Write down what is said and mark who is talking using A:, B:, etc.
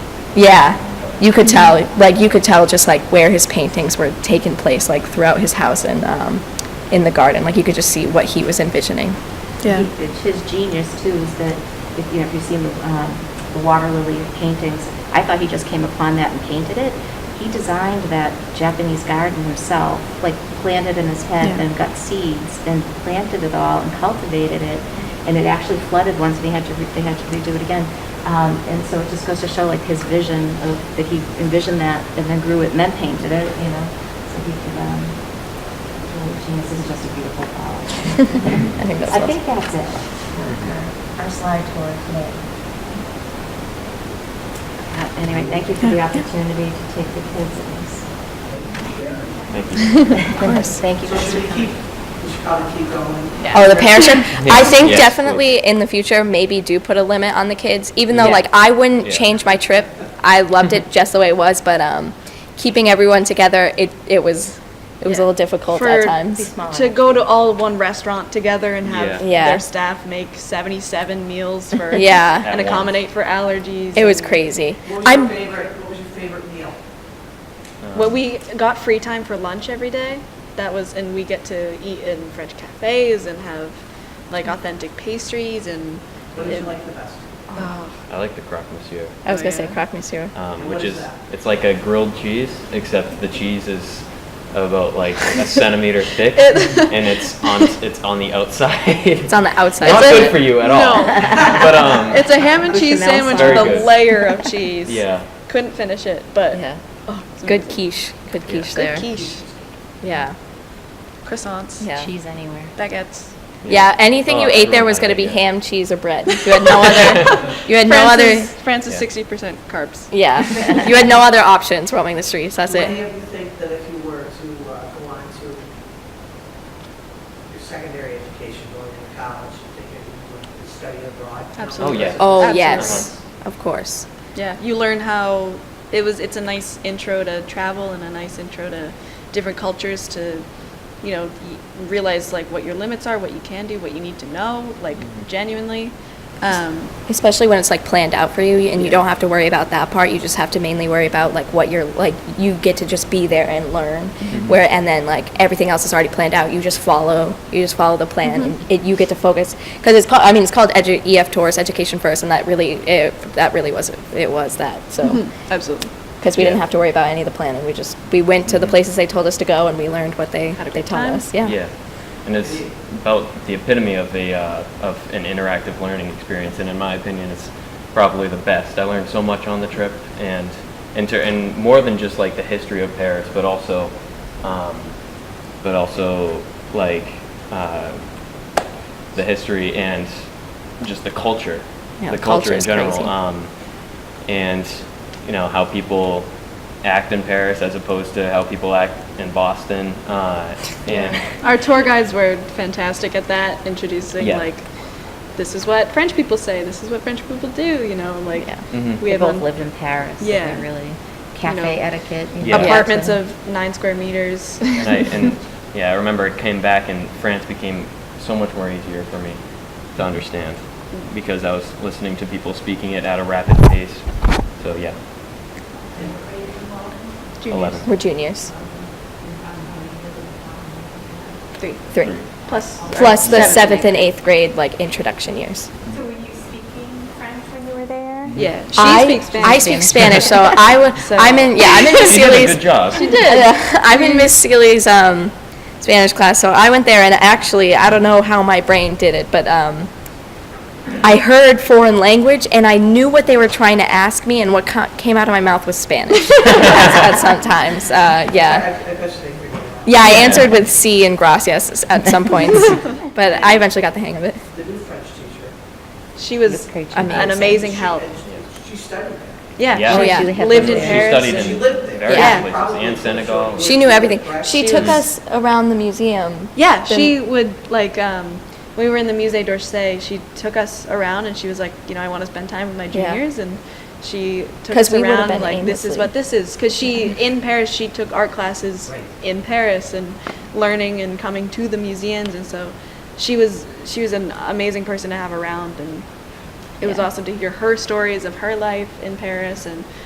A: Yeah, you could tell, like, you could tell just like where his paintings were taking place, like throughout his house and um, in the garden. Like, you could just see what he was envisioning.
B: Yeah.
C: He- it's His genius too is that, if, you know, if you've seen the, um, the water lily paintings, I thought he just came upon that and painted it. He designed that Japanese garden himself, like planted in his head
B: Yeah.
C: and got seeds and planted it all and cultivated it. And it actually flooded once and he had to, re- they had to redo it again. Um, and so it just goes to show like his vision of, that he envisioned that and then grew it and then painted it, you know? So he could, um, really genius, this is just a beautiful flower.
A: I think that's
C: I
A: what-
C: think that's it. Our slide tour today. Uh, Anyway, thank you for the opportunity to take the kids in this.
A: Of course.
C: Thank you.
D: So should we
C: Mr.
D: keep, we should probably keep going.
A: Oh, the parents should. I think
E: Yeah.
A: definitely in the future, maybe do put a limit on the kids. Even though,
E: Yeah.
A: like, I wouldn't
E: Yeah. Mm-hmm.
A: change my trip. I loved it just the way it was, but um, keeping everyone together, it it was it was a
B: Yeah.
A: little difficult
B: For-
A: at
C: Be
A: times.
C: smaller.
B: To go to all one restaurant together and have
E: Yeah.
A: Yeah.
B: their staff make 77 meals for
A: Yeah.
E: At
B: and
E: once.
B: accommodate for allergies.
A: It was
B: and-
A: crazy.
D: What was your
A: I'm
D: favorite, what was your favorite meal?
B: Well, we got free time for lunch every day. That was, and we get to eat in French cafes and have like authentic pastries and.
D: What did you like the best?
B: Oh,
E: I like the croque monsieur,
A: I was
B: Oh,
A: gonna
B: yeah.
A: say croque monsieur.
E: um,
D: And
E: which
D: what is
E: is,
D: that?
E: it's like a grilled cheese, except the cheese is about like a centimeter thick,
B: It-
E: and it's on, it's on the outside. It's
A: on the outside.
E: Not
B: It's a-
E: good for you at all.
B: No.
E: But, um,
B: It's a ham and
C: Bechamel
B: cheese sandwich
C: sauce.
B: with
E: Very
B: a
E: good.
B: layer of cheese.
E: Yeah.
B: Couldn't finish it, but.
A: Yeah.
B: oh, it's
A: Good
B: amazing.
A: quiche. Good
E: Yeah.
A: quiche
E: Good
A: there.
B: Good quiche,
A: Yeah.
B: croissants,
A: Yeah.
C: Cheese anywhere.
B: baguettes.
A: Yeah, anything
E: Oh,
A: you
E: I
A: ate there
E: remember
A: was going to be
E: that, yeah.
A: ham, cheese, or bread. You had no other. You had no other.
B: France is- France is
E: Yeah.
B: 60% carbs.
A: Yeah, you had no other options roaming the streets. That's
D: What do
A: it.
D: you think that if you were to uh, go on to your secondary education, going to college, you think that you would study abroad?
B: Absolutely.
E: Oh, yeah.
A: Oh
B: Absolutely.
A: yes, of course.
B: Yeah, you learn how it was. It's a nice intro to travel and a nice intro to different cultures to, you know, y- realize like what your limits are, what you can do, what you need to know, like
E: Mm-hmm.
B: genuinely. Um,
A: Especially when it's like planned out for you, and you
E: Yeah.
A: don't have to worry about that part. You just have to mainly worry about like what you're like. You get to just be there and learn, where and then like everything else is already planned out. You just follow. You just follow the plan, and it, you get to focus because it's called. I mean, it's called edu- EF Tours, Education First, and that really it, that really was it was that. So.
B: Mm-hmm. absolutely.
A: because we didn't
E: Yeah.
A: have to worry about any of the planning. We just we went to the places they told us to go, and we learned what they
B: Had a
A: they
B: good
A: taught
B: time.
A: us. Yeah.
E: And it's about the epitome of a uh, of an interactive learning experience, and in my opinion, it's probably the best. I learned so much on the trip, and inter- and more than just like the history of Paris, but also, um, but also like uh, the history and just the culture,
A: Yeah,
E: the
A: the
E: culture
A: culture
E: in
A: is
E: general.
A: crazy.
E: Um, and you know how people act in Paris as opposed to how people act in Boston. Uh, and
B: Our tour guides were fantastic at that, introducing
E: Yeah.
B: like, this is what French people say, this is what French people do. You know, like
A: Yeah.
E: Mhm.
B: we
C: They
B: have
C: both
B: on-
C: lived in Paris. so
B: Yeah.
C: they Really,
B: You
C: cafe
B: know,
C: etiquette. you know,
E: Yeah.
B: apartments
C: so-
B: of nine square meters.
E: and, I, and yeah, I remember it came back and France became so much more easier for me to understand because I was listening to people speaking it at a rapid pace. So yeah, eleven.
A: We're juniors.
B: Three.
A: Three.
B: Plus.
A: Plus the seventh and eighth grade like introduction years.
F: So were you speaking French when you were there?
B: Yeah, she
A: I,
B: speaks Spanish.
A: I speak Spanish, so I would.
B: So-
A: I'm in. Yeah, I'm in Miss
E: She did
A: Seeley's.
E: a good job.
A: She did. I'm in Miss Seeley's um, Spanish class, so I went there, and actually, I don't know how my brain did it, but um, I heard foreign language, and I knew what they were trying to ask me, and what co- came out of my mouth was Spanish. That's- that's sometimes, uh, yeah.
D: I I bet you they figured it out.
A: Yeah, I answered with C and gracias at some points, but I eventually got the hang of it.
D: The new French teacher.
B: She was
C: Miss Krejci.
B: an
A: Amazing.
B: amazing help.
D: And She studied there.
B: Yeah,
E: Yeah.
A: Oh,
B: she
A: yeah.
C: had
B: lived
C: to
B: in
C: live
E: She
B: Paris.
E: studied
B: and-
D: She
E: in
D: lived there.
E: various
A: Yeah.
E: places and Senegal. Mm-hmm.
A: She knew everything. She took us around the museum.
B: yeah,
A: Then-
B: she would like um, we were in the Musée d'Orsay. She took us around and she was like, you know, I want to spend time with my
A: Yeah.
B: juniors and. She took
A: 'Cause
B: us
A: we would've
B: around
A: been
B: like this is
A: aimlessly.
B: what this is because she in Paris she took art classes
D: Right.
B: in Paris and learning and coming to the museums and so she was she was an amazing person to have around and it was
A: Yeah.
B: awesome to hear her stories of her life in Paris and